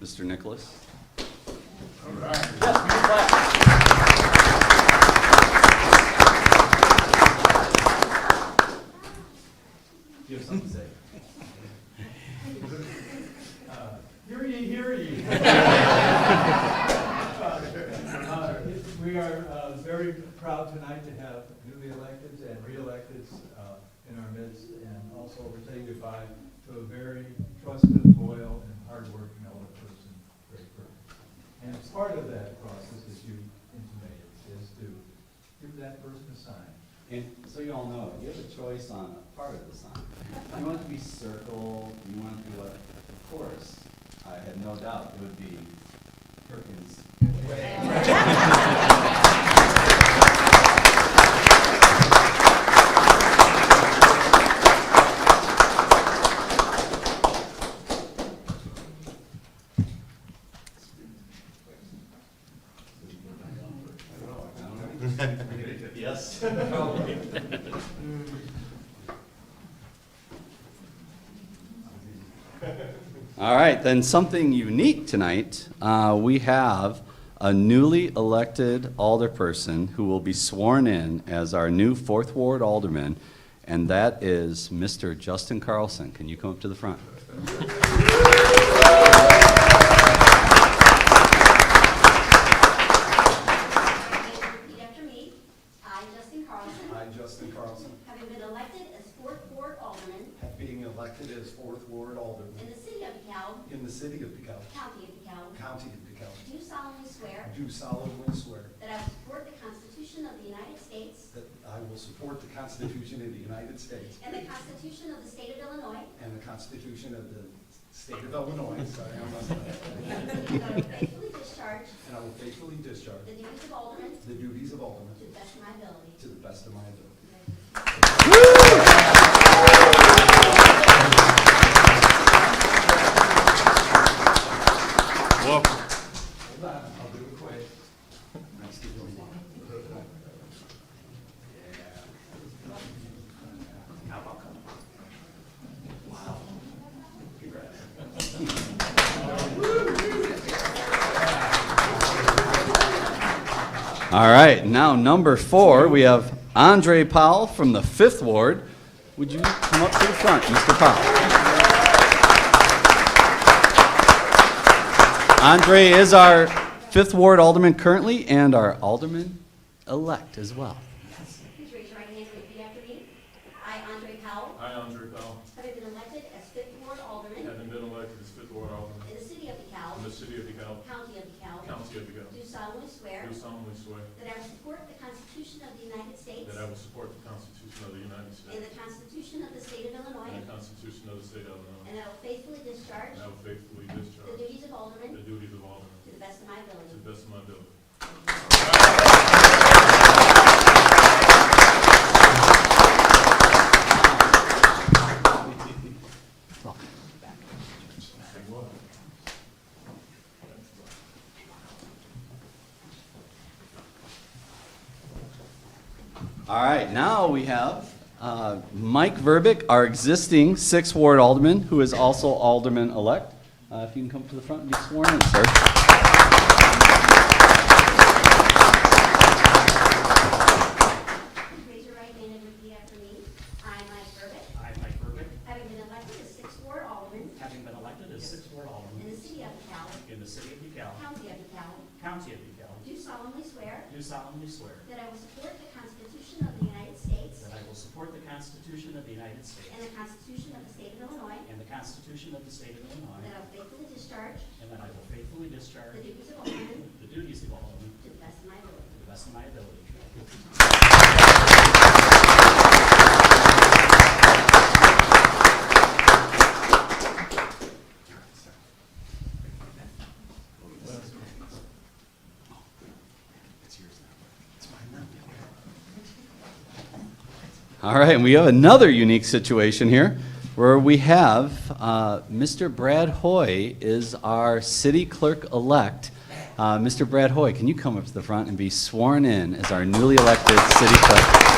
Mr. Nicholas. You have something to say? Uh, Hear ye, hear ye. Uh, We are uh, very proud tonight to have newly electeds and re-electeds uh, in our midst, and also we're saying goodbye to a very trusted, loyal, and hardworking elder person, Greg Burke. And part of that process, as you intimated, is to give that person a sign. And so you all know, you have a choice on a part of the sign. You want it to be circle, you want it to be what? Of course, I had no doubt it would be Perkins. I don't know. Yes. Mm. All right, then something unique tonight. Uh, We have a newly elected alderperson who will be sworn in as our new Fourth Ward alderman, and that is Mr. Justin Carlson. Can you come up to the front? Repeat after me. I, Justin Carlson, I, Justin Carlson, having been elected as fourth ward alderman have being elected as fourth ward alderman in the city of DeKalb, in the city of DeKalb, county of DeKalb, county of do solemnly swear DeKalb, do solemnly swear that I will support the Constitution of the United States that I will support the Constitution of the United States and the Constitution of the state of Illinois, and the Constitution of the state of Illinois, sorry, I'm not, and that I will faithfully discharge and I will faithfully discharge the duties of alderman the duties of alderman to the best of my ability. to the best of my ability. Hold on, I'll do it quick. Nice to meet you. All right, now number four, we have Andre Powell from the Fifth Ward. Would you come up to the front, Mr. Powell? Andre is our Fifth Ward Alderman currently and our Alderman-elect as well. Please raise your right hand and repeat after me. I, Andre Powell, I, Andre Bell, having been elected as fifth ward alderman having been elected as fifth ward alderman in the city of in the DeKalb, city of DeKalb, county of DeKalb, county of DeKalb, do solemnly swear do solemnly swear That I will support the Constitution of the United States that I will support the Constitution of the United and States the Constitution of the State of Illinois, and the Constitution of the state of Illinois, and that I will faithfully discharge and I will faithfully the discharge duties of alderman the duties of alderman to the best of my to ability. the best of my ability. All right, now we have uh, Mike Verbic, our existing Sixth Ward Alderman, who is also Alderman-elect. Uh, If you can come up to the front and be sworn in, sir. Raise your right hand and repeat after me. I, Mike Burbick, I, Mike Burbick, having been elected as sixth ward alderman having been elected as sixth ward in alderman the city of DeKalb, in the city of DeKalb, county of DeKalb, county of DeKalb, do solemnly swear do solemnly swear that I will support the Constitution of the United States that I will support the Constitution of the United States and the Constitution of the State of Illinois, and the Constitution of the state of and that I Illinois, will faithfully discharge and that I will faithfully discharge the duties of alderman the duties of alderman to the best of my ability. to the best of my ability. All right, and we have another unique situation here where we have uh, Mr. Brad Hoy is our city clerk-elect. Uh, Mr. Brad Hoy, can you come up to the front and be sworn in as our newly elected city clerk? uh,